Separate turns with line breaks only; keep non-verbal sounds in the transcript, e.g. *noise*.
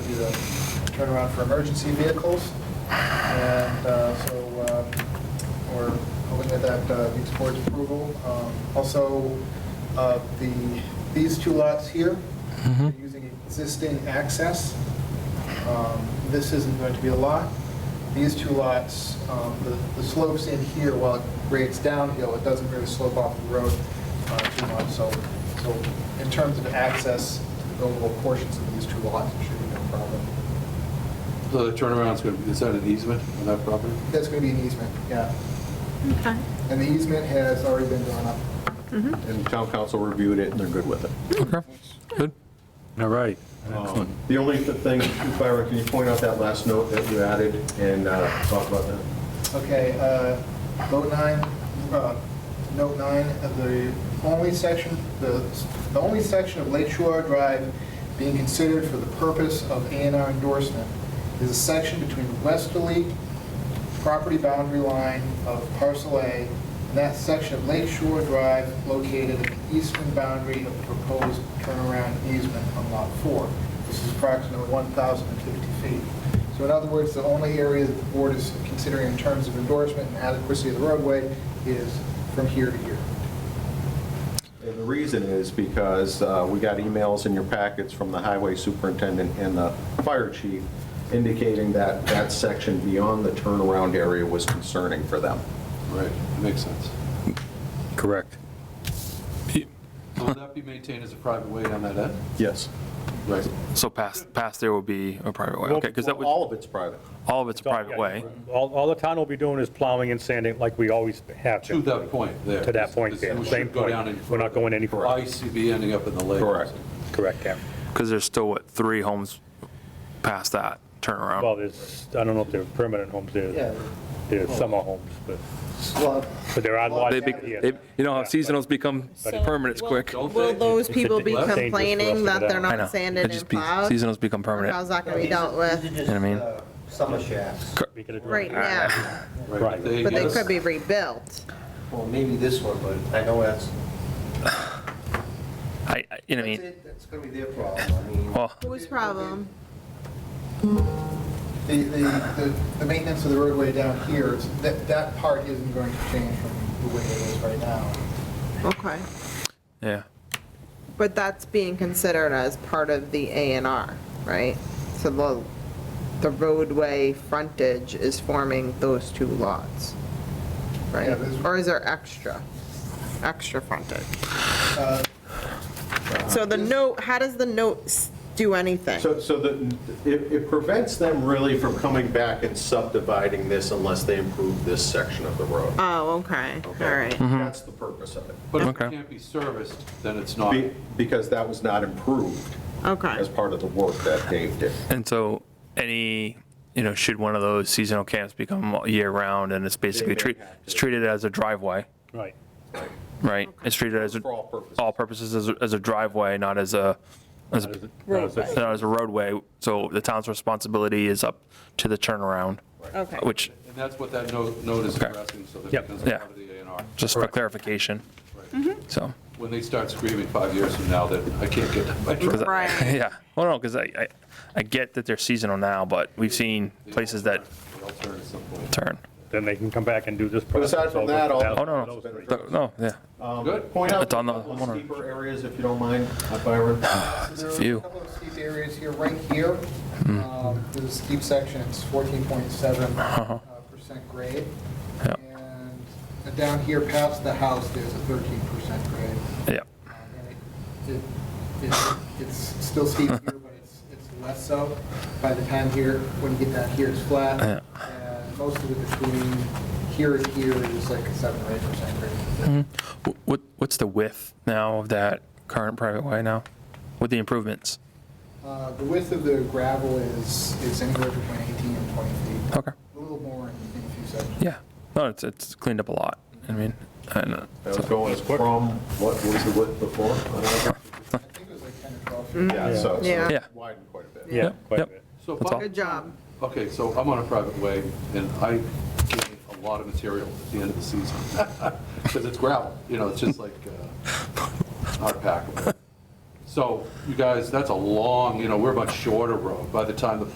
the turnaround for emergency vehicles. And uh, so uh, we're hoping that that uh, meets board's approval. Um, Also, uh, the, these two lots here, are using existing access. Um, This isn't going to be a lot. These two lots, um, the the slopes in here, while it grades downhill, it doesn't really slope off the road uh, too much. So, so in terms of access to the buildable portions of these two lots, it should be no problem.
So the turnaround's going to, is that an easement on that property?
That's going to be an easement, yeah.
Okay.
And the easement has already been drawn up.
And town council reviewed it, and they're good with it.
Okay, good.
All right.
Um, The only th- thing, Byron, can you point out that last note that you added and uh, talk about that?
Okay, uh, note nine, uh, note nine, of the only section, the, the only section of Lake Shore Drive being considered for the purpose of A and R endorsement is a section between the westerly property boundary line of parcel A and that section of Lake Shore Drive located at the eastern boundary of the proposed turnaround easement on lot four. This is approximately 1,050 feet. So in other words, the only area that the board is considering in terms of endorsement and adequacy of the roadway is from here to here.
And the reason is because uh, we got emails in your packets from the highway superintendent and the fire chief indicating that that section beyond the turnaround area was concerning for them.
Right, makes sense.
Correct.
So Will that be maintained as a private way down that end?
Yes.
Right.
So past, past there will be a private way, okay, because that would,
All of it's private.
all of it's a private way.
All, all the town will be doing is plowing and sanding like we always have
To
been.
that point there.
To that point there,
We
same
should go
point.
down any
We're not going any
further.
further.
Ice, you'd be ending up in the lake.
Correct.
Correct, yeah.
Because there's still, what, three homes past that
Well,
turnaround?
there's, I don't know if they're permanent homes, they're, they're summer homes, but, but they're on lots
They, be-
here.
they- you know how seasonals become
So,
permanents
will-
quick.
Don't
Will
they?
those
It's
people
a
be
dangerous for us to
complaining
get
that they're
out.
I know.
not
It'd
sanded
just
and
be-
plowed?
Seasonals become
Or How's
permanent.
that gonna be dealt with?
You know what I mean?
uh, Summer shafts.
We could agree.
Right now,
Right.
Right.
but they
yes.
could be rebuilt.
Well, maybe this one, but I know that's,
I, I- you
that's
know what I mean?
it, that's gonna be their problem, I mean.
Well,
Whose problem?
The, the, the- the maintenance of the roadway down here, is- that, that part isn't going to change from the way it is right now.
Okay.
yeah,
But that's being considered as part of the A and R, right? So the, the roadway frontage is forming those two lots,
Yeah,
right?
there's-
Or is there extra, extra frontage?
Uh,
So the note, how does the note s- do anything?
So, so the, it, it prevents them really from coming back and subdividing this unless they improve this section of the road.
Oh, okay, all
Okay? Hmm.
right.
Mm-hmm.
That's the purpose of it,
But if it
Okay.
can't be serviced, then it's not.
Be- because that was not improved
Okay,
as part of the work that Dave did.
and so any, you know, should one of those seasonal camps become year-round and it's basically
may
treated,
have to.
it's treated as a driveway,
Right.
right? It's treated as, a-
For all purposes.
all purposes as, a- as a driveway, not as a, as, a-
Roadway.
not as a roadway. So the town's responsibility is up to the turnaround,
okay.
which,
And that's what that note, note is
Okay.
addressing, so that it
Yep.
becomes
Yeah.
part of the A and R.
just for clarification.
Mm-hmm.
So.
When they start screaming five years from now that I can't get my
Cause I-
truck.
Right.
*laughs* Yeah, well, no, because I, I, I get that they're seasonal now, but we've seen places that
They all turn at some point.
turn.
Then they can come back and do this process.
aside from
over
that, all-
without
Oh, no,
those three.
no, no, yeah,
Good.
Um, Point out
It's on the
a couple
homeowner.
of steeper areas, if you don't mind, uh,
*sighs*
Byron.
There are
few. Hmm.
a couple of steep areas here, right here, um, there's a steep section, it's 14.7 uh, percent grade.
Uh-huh. Yeah.
And down here past the house, there's a 13 percent grade.
yeah,
Um, and it- it- it's- It's still steep here, but it's, it's less so. By the time here, when you get down here, it's flat.
Yeah.
And most of it between here and here is like a 7 or 8 percent grade.
Mm-hmm. Wh- What, what's the width now of that current private way now, with the improvements?
Uh, The width of the gravel is, is anywhere between 18 and 20 feet.
Okay,
A little more in in a few seconds.
yeah, no, it's, it's cleaned up a lot, I mean, and, uh,
That was going from, what was the width before?
I think it was like 10 or 12 feet.
Yeah, so, so
Yeah.
Yeah.
it widened quite a bit.
Yeah,
Yep,
quite a
yep.
bit.
So if
That's
I-
all.
Good job.
Okay, so I'm on a private way, and I gain a lot of material at the end of the season, *laughs*
*laughs*
because it's gravel, you know, it's just like uh, hard packable. So you guys, that's a long, you know, we're a much shorter road by the time the